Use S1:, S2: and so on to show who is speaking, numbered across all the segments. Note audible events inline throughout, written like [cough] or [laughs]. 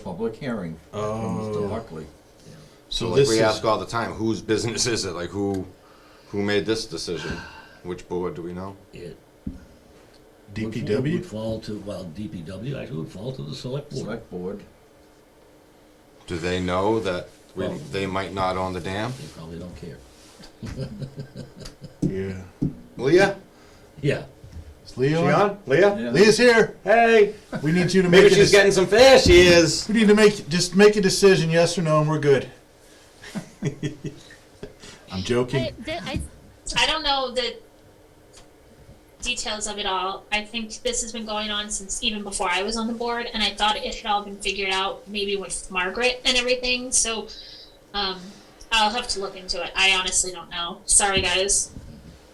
S1: public hearing.
S2: Oh.
S1: Mr. Buckley.
S2: So
S3: like
S2: this
S3: we
S2: is,
S3: ask all the time, whose business is it? Like who, who made this decision? Which board do we know?
S4: It would-
S2: DPW.
S4: Would fall to, well, DPW actually would fall to the select board.
S1: Select board.
S3: Do they know that we,
S4: Well-
S3: they might not own the dam?
S4: They probably don't care.
S2: Yeah.
S3: Leah,
S4: Yeah,
S2: Is Leo?
S3: she
S2: on?
S3: on? Leah,
S1: Yeah.
S2: Leah's here.
S3: hey,
S2: We need you to make.
S3: maybe
S2: a
S3: she's
S2: dec-
S3: getting some fish. She is.
S2: We need to make just make a decision, yes or no, and we're good.
S3: [laughs]
S2: I'm
S5: I,
S2: joking.
S5: th- I, I don't know the details of it all. I think this has been going on since even before I was on the board, and I thought it had all been figured out maybe with Margaret and everything. So, um, I'll have to look into it. I honestly don't know. Sorry, guys.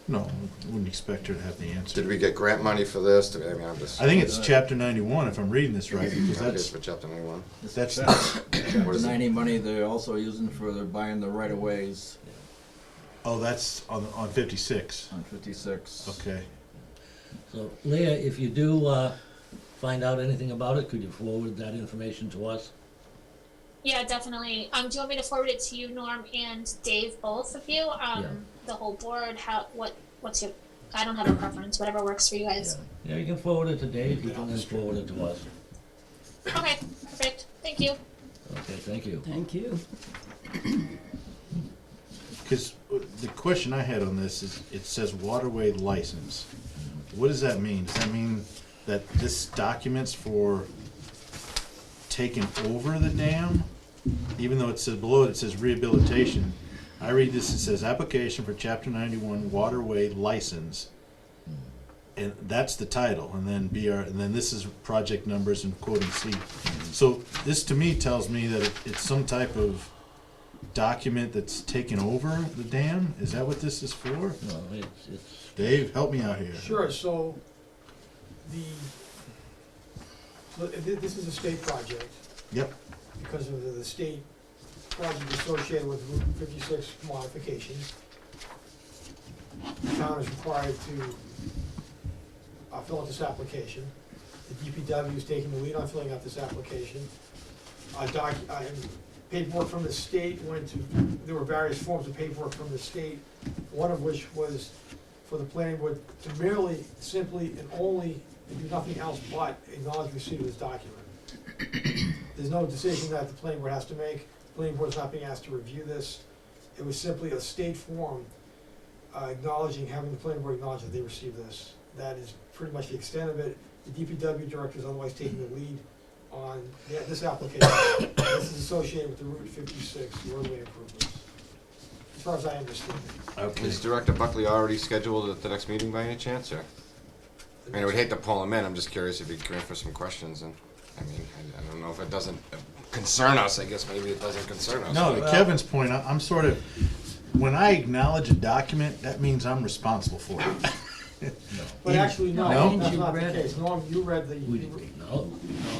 S2: No, wouldn't expect her to have the
S3: Did
S2: answer.
S3: we get grant money for this? Did- I mean, I'm just.
S2: I think it's chapter 91 if I'm reading this right, because
S3: That
S2: that's
S3: is for chapter ninety-one.
S2: that's
S3: What
S1: Chapter
S3: is it?
S1: ninety money they're also using for, they're buying the right of ways
S2: oh that's on on 56.
S1: on fifty-six.
S2: Okay.
S4: so Leah, if you do, uh, find out anything about it, could you forward that information to us?
S5: Yeah, definitely. Um, do you want me to forward it to you, Norm and Dave, both of you? Um,
S4: Yeah.
S5: the whole board. How? What? What's your? I don't have a preference. Whatever works for you guys.
S4: Yeah, Yeah, you can forward it to Dave, you can then forward it to us.
S5: Okay. Perfect. Thank you.
S4: Okay, thank you.
S6: Thank you.
S2: Because the question I had on this is, it says waterway license. What does that mean? Does that mean that this documents for taking over the dam? Even though it says below it, it says rehabilitation. I read this, it says application for chapter ninety-one waterway license. And that's the title, and then BR, and then this is project numbers and quoting C. So this to me tells me that it- it's some type of document that's taken over the dam? Is that what this is for?
S4: No, it's, it's,
S2: Dave, help me out here.
S7: Sure, so the, so thi- this is a state project
S2: Yep,
S7: because of the- the state project associated with Route fifty-six modification. The town is required to uh, fill out this application. The DPW is taking the lead on filling out this application. Uh, doc, I, paperwork from the state went to, there were various forms of paperwork from the state, one of which was for the planning board to merely, simply, and only, and do nothing else but acknowledge receipt of this document. There's no decision that the planning board has to make, the planning board's not being asked to review this. It was simply a state form uh, acknowledging, having the planning board acknowledge that they received this. That is pretty much the extent of it. The DPW director is otherwise taking the lead on the- this application. This is associated with the Route fifty-six roadway improvements, as far as I understand it.
S2: okay.
S3: Is Director Buckley already scheduled at the next meeting by any chance, or? I mean, I would hate to pull him in, I'm just curious if he'd come in for some questions, and, I mean, I, I don't know if it doesn't concern us, I guess maybe it doesn't concern us.
S2: No, to
S4: Well-
S2: Kevin's point, I- I'm sort of, when I acknowledge a document, that means I'm responsible for it.
S7: But actually,
S2: No?
S7: no, that's not the
S6: You read it.
S7: case. Norm, you read the,
S4: we, no, no,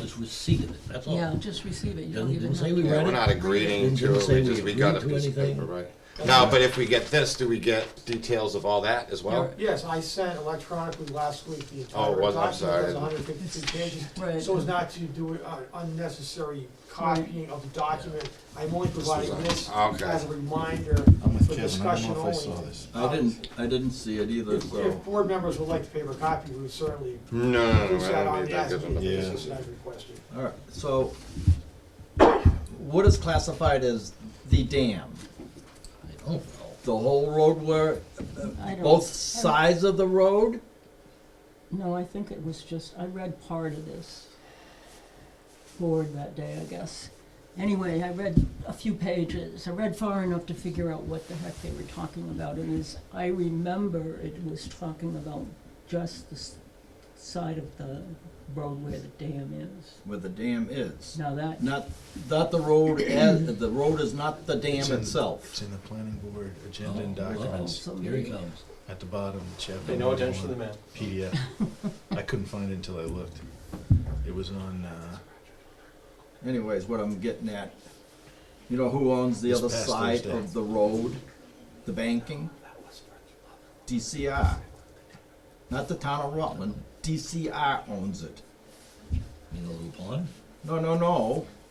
S4: it's receipt of it, that's all.
S6: Yeah, just receive it. You don't
S4: Didn't-
S6: even
S4: didn't say
S6: have
S4: we
S6: to-
S3: Yeah, we're
S4: Right.
S3: not agreeing
S4: Didn't-
S3: to
S4: didn't
S3: it,
S4: say
S3: we just,
S4: we
S3: we got a
S4: agreed to
S3: piece of
S4: anything.
S3: paper, right? No, but if we get this, do we get details of all that as well?
S7: yes, I sent electronically last week the entire
S3: Oh, it was- I'm
S7: document,
S3: sorry.
S7: that's hundred fifty-two pages.
S6: Right.
S7: So as not to do uh, unnecessary copying of the document, I'm only providing
S3: This was
S7: this
S3: on- okay.
S7: as a reminder
S2: I'm with
S7: for
S2: Kevin, I
S7: discussion
S2: don't know if I
S7: only. Uh,
S2: saw this.
S1: I didn't, I didn't see it either,
S7: If,
S1: so.
S7: if board members would like to paper copy, we would certainly
S3: No, no, no,
S7: push
S3: I
S7: that
S3: don't
S7: on
S3: need that,
S7: that,
S3: gives them the
S2: Yeah.
S3: basis.
S7: as I requested.
S1: All right, so what is classified as the dam?
S4: I don't know.
S1: The whole road where,
S6: I don't-
S1: both sides of the road?
S6: No, I think it was just, I read part of this board that day, I guess. Anyway, I read a few pages. I read far enough to figure out what the heck they were talking about. And as I remember, it was talking about just the s- side of the road where the dam is.
S1: Where the dam is.
S6: Now that,
S1: Not, not the road
S2: [clears throat]
S1: as, the road is not the dam
S2: It's in- It's
S1: itself.
S2: in the planning board agenda and
S4: Oh, wow.
S2: documents
S4: Here he comes.
S2: at the bottom, chapter.
S8: Pay no attention to the man.
S2: PDF. I couldn't find it until I looked. It was on, uh,
S1: Anyways, what I'm getting at, you know who owns the
S2: This
S1: other
S2: past
S1: side
S2: Thursday.
S1: of the road? The banking? DCR. Not the town of Rutland, DCR owns it.
S4: You know, Lupin?
S1: No, no, no.